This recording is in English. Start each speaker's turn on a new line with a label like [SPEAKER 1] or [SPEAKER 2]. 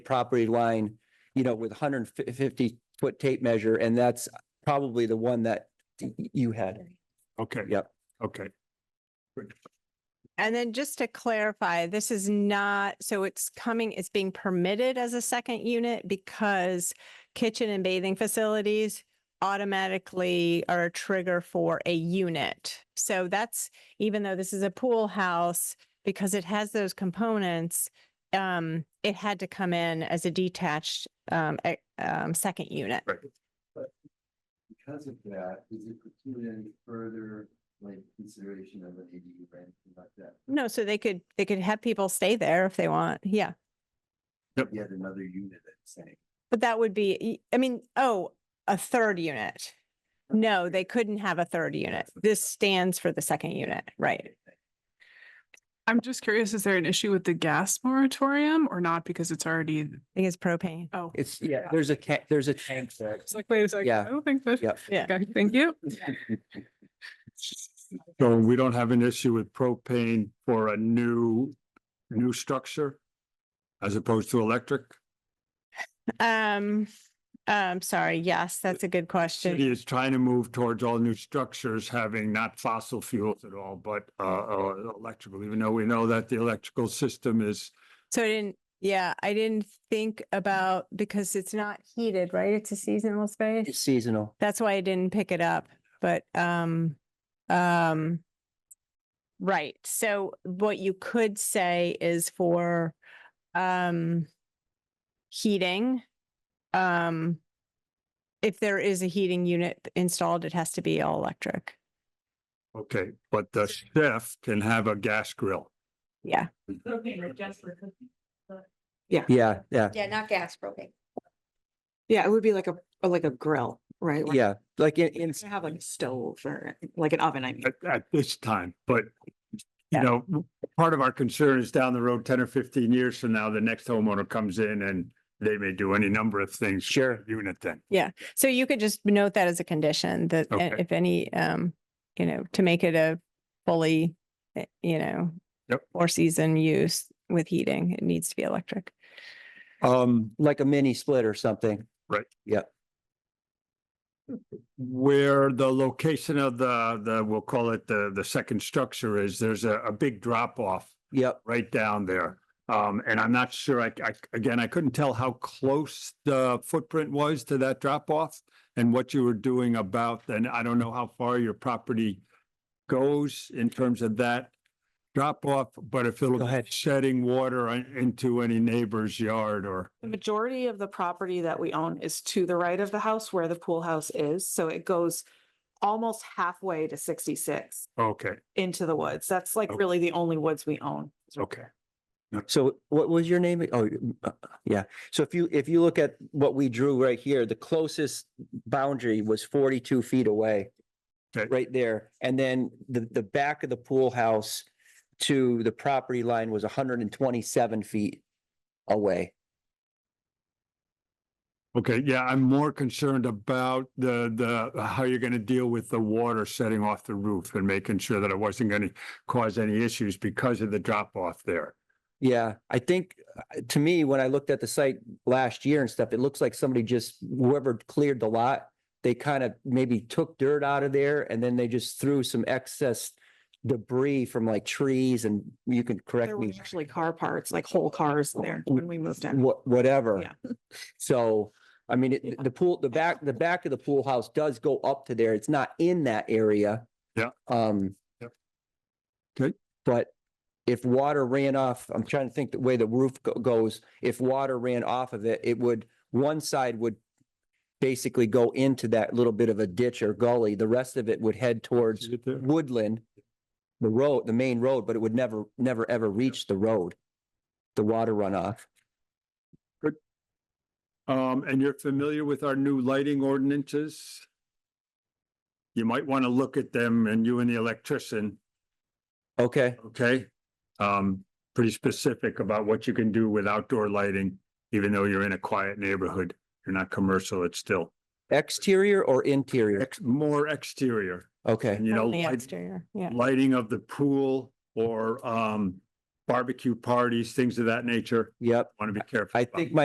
[SPEAKER 1] property line, you know, with hundred and fifty foot tape measure, and that's probably the one that y- y- you had.
[SPEAKER 2] Okay.
[SPEAKER 1] Yep.
[SPEAKER 2] Okay,
[SPEAKER 3] And then just to clarify, this is not, so it's coming, it's being permitted as a second unit because kitchen and bathing facilities automatically are a trigger for a unit. So that's, even though this is a pool house, because it has those components, um, it had to come in as a detached, um, e- um, second unit.
[SPEAKER 2] right.
[SPEAKER 4] because of that, is it preclude any further like consideration of an ADU or anything like that?
[SPEAKER 3] No, so they could, they could have people stay there if they want. Yeah.
[SPEAKER 4] Yet another unit that's saying.
[SPEAKER 3] But that would be, y- I mean, oh, a third unit. No, they couldn't have a third unit. This stands for the second unit, right?
[SPEAKER 5] I'm just curious, is there an issue with the gas moratorium or not? Because it's already,
[SPEAKER 3] I think it's propane.
[SPEAKER 5] oh.
[SPEAKER 1] It's, yeah, there's a, ca- there's a tank there.
[SPEAKER 5] It's like, wait a second.
[SPEAKER 1] Yeah.
[SPEAKER 5] I don't think that.
[SPEAKER 1] Yep.
[SPEAKER 3] Yeah.
[SPEAKER 5] Okay, thank you.
[SPEAKER 2] So we don't have an issue with propane for a new, new structure? As opposed to electric?
[SPEAKER 3] Um, um, sorry, yes, that's a good question.
[SPEAKER 2] City is trying to move towards all new structures having not fossil fuels at all, but uh, uh, electrical, even though we know that the electrical system is,
[SPEAKER 3] So I didn't, yeah, I didn't think about, because it's not heated, right? It's a seasonal
[SPEAKER 1] It's
[SPEAKER 3] space.
[SPEAKER 1] seasonal.
[SPEAKER 3] That's why I didn't pick it up, but, um, um, right. So what you could say is for, um, heating, um, if there is a heating unit installed, it has to be all electric.
[SPEAKER 2] okay, but the chef can have a gas grill.
[SPEAKER 3] Yeah.
[SPEAKER 1] Yeah, yeah,
[SPEAKER 6] Yeah, not gas, propane.
[SPEAKER 7] Yeah, it would be like a, or like a grill, right? Like,
[SPEAKER 1] yeah, like in, in,
[SPEAKER 7] you Have like a stove or like an oven, I mean.
[SPEAKER 2] at, at this time, but you
[SPEAKER 3] Yeah.
[SPEAKER 2] know, part of our concern is down the road, ten or fifteen years from now, the next homeowner comes in and they may do any number of things. to
[SPEAKER 1] Sure.
[SPEAKER 2] the Unit then.
[SPEAKER 3] So you could just note that as a condition that uh,
[SPEAKER 2] Okay.
[SPEAKER 3] if any, um, you know, to make it a fully, uh, you know,
[SPEAKER 2] Yep.
[SPEAKER 3] four season use with heating, it needs to be electric.
[SPEAKER 2] Um,
[SPEAKER 1] like a mini split or something.
[SPEAKER 2] where the location of the, the, we'll call it the, the second structure is, there's a, a big drop off
[SPEAKER 1] Yep,
[SPEAKER 2] right down there. Um, and I'm not sure, I, I, again, I couldn't tell how close the footprint was to that drop off and what you were doing about, and I don't know how far your property goes in terms of that drop off, but if it'll
[SPEAKER 1] Go
[SPEAKER 2] be
[SPEAKER 1] ahead.
[SPEAKER 2] shedding water on- into any neighbor's yard or,
[SPEAKER 7] The majority of the property that we own is to the right of the house where the pool house is, so it goes almost halfway to sixty-six
[SPEAKER 2] okay,
[SPEAKER 7] into the woods. That's like
[SPEAKER 1] Oh.
[SPEAKER 2] Okay.
[SPEAKER 7] really the only woods we own.
[SPEAKER 2] okay.
[SPEAKER 1] so what was your name? Oh, uh, yeah, so if you, if you look at what we drew right here, the closest boundary was forty-two feet away.
[SPEAKER 2] Okay.
[SPEAKER 1] Right there, and then the, the back of the pool house to the property line was hundred and twenty-seven feet away.
[SPEAKER 2] Okay, yeah, I'm more concerned about the, the, how you're gonna deal with the water setting off the roof and making sure that it wasn't gonna cause any issues because of the drop off there.
[SPEAKER 1] Yeah, I think, uh, to me, when I looked at the site last year and stuff, it looks like somebody just, whoever cleared the lot, they kind of maybe took dirt out of there and then they just threw some excess debris from like trees and you can correct
[SPEAKER 7] There were
[SPEAKER 1] me,
[SPEAKER 7] actually car parts, like whole cars there when we moved in.
[SPEAKER 1] what, whatever.
[SPEAKER 7] Yeah.
[SPEAKER 1] So, I mean, it- the pool, the back, the back of the pool house does go up to there. It's not in that area.
[SPEAKER 2] Yeah.
[SPEAKER 1] Um.
[SPEAKER 2] Yep. Good.
[SPEAKER 1] But if water ran off, I'm trying to think the way the roof go- goes, if water ran off of it, it would, one side would basically go into that little bit of a ditch or gully. The rest of it would head towards
[SPEAKER 2] Is it there?
[SPEAKER 1] woodland, the road, the main road, but it would never, never, ever reach the road, the water runoff.
[SPEAKER 2] Um, and you're familiar with our new lighting ordinances? You might wanna look at them and you and the electrician,
[SPEAKER 1] Okay.
[SPEAKER 2] okay? Um, pretty specific about what you can do with outdoor lighting, even though you're in a quiet neighborhood. You're not commercial, it's still
[SPEAKER 1] Exterior or interior?
[SPEAKER 2] ex- more exterior.
[SPEAKER 1] Okay.
[SPEAKER 2] And you know,
[SPEAKER 3] Only
[SPEAKER 2] light-
[SPEAKER 3] exterior, yeah.
[SPEAKER 2] lighting of the pool or um barbecue parties, things of that nature.
[SPEAKER 1] Yep.
[SPEAKER 2] Want to be careful.
[SPEAKER 1] I
[SPEAKER 2] about.
[SPEAKER 1] think my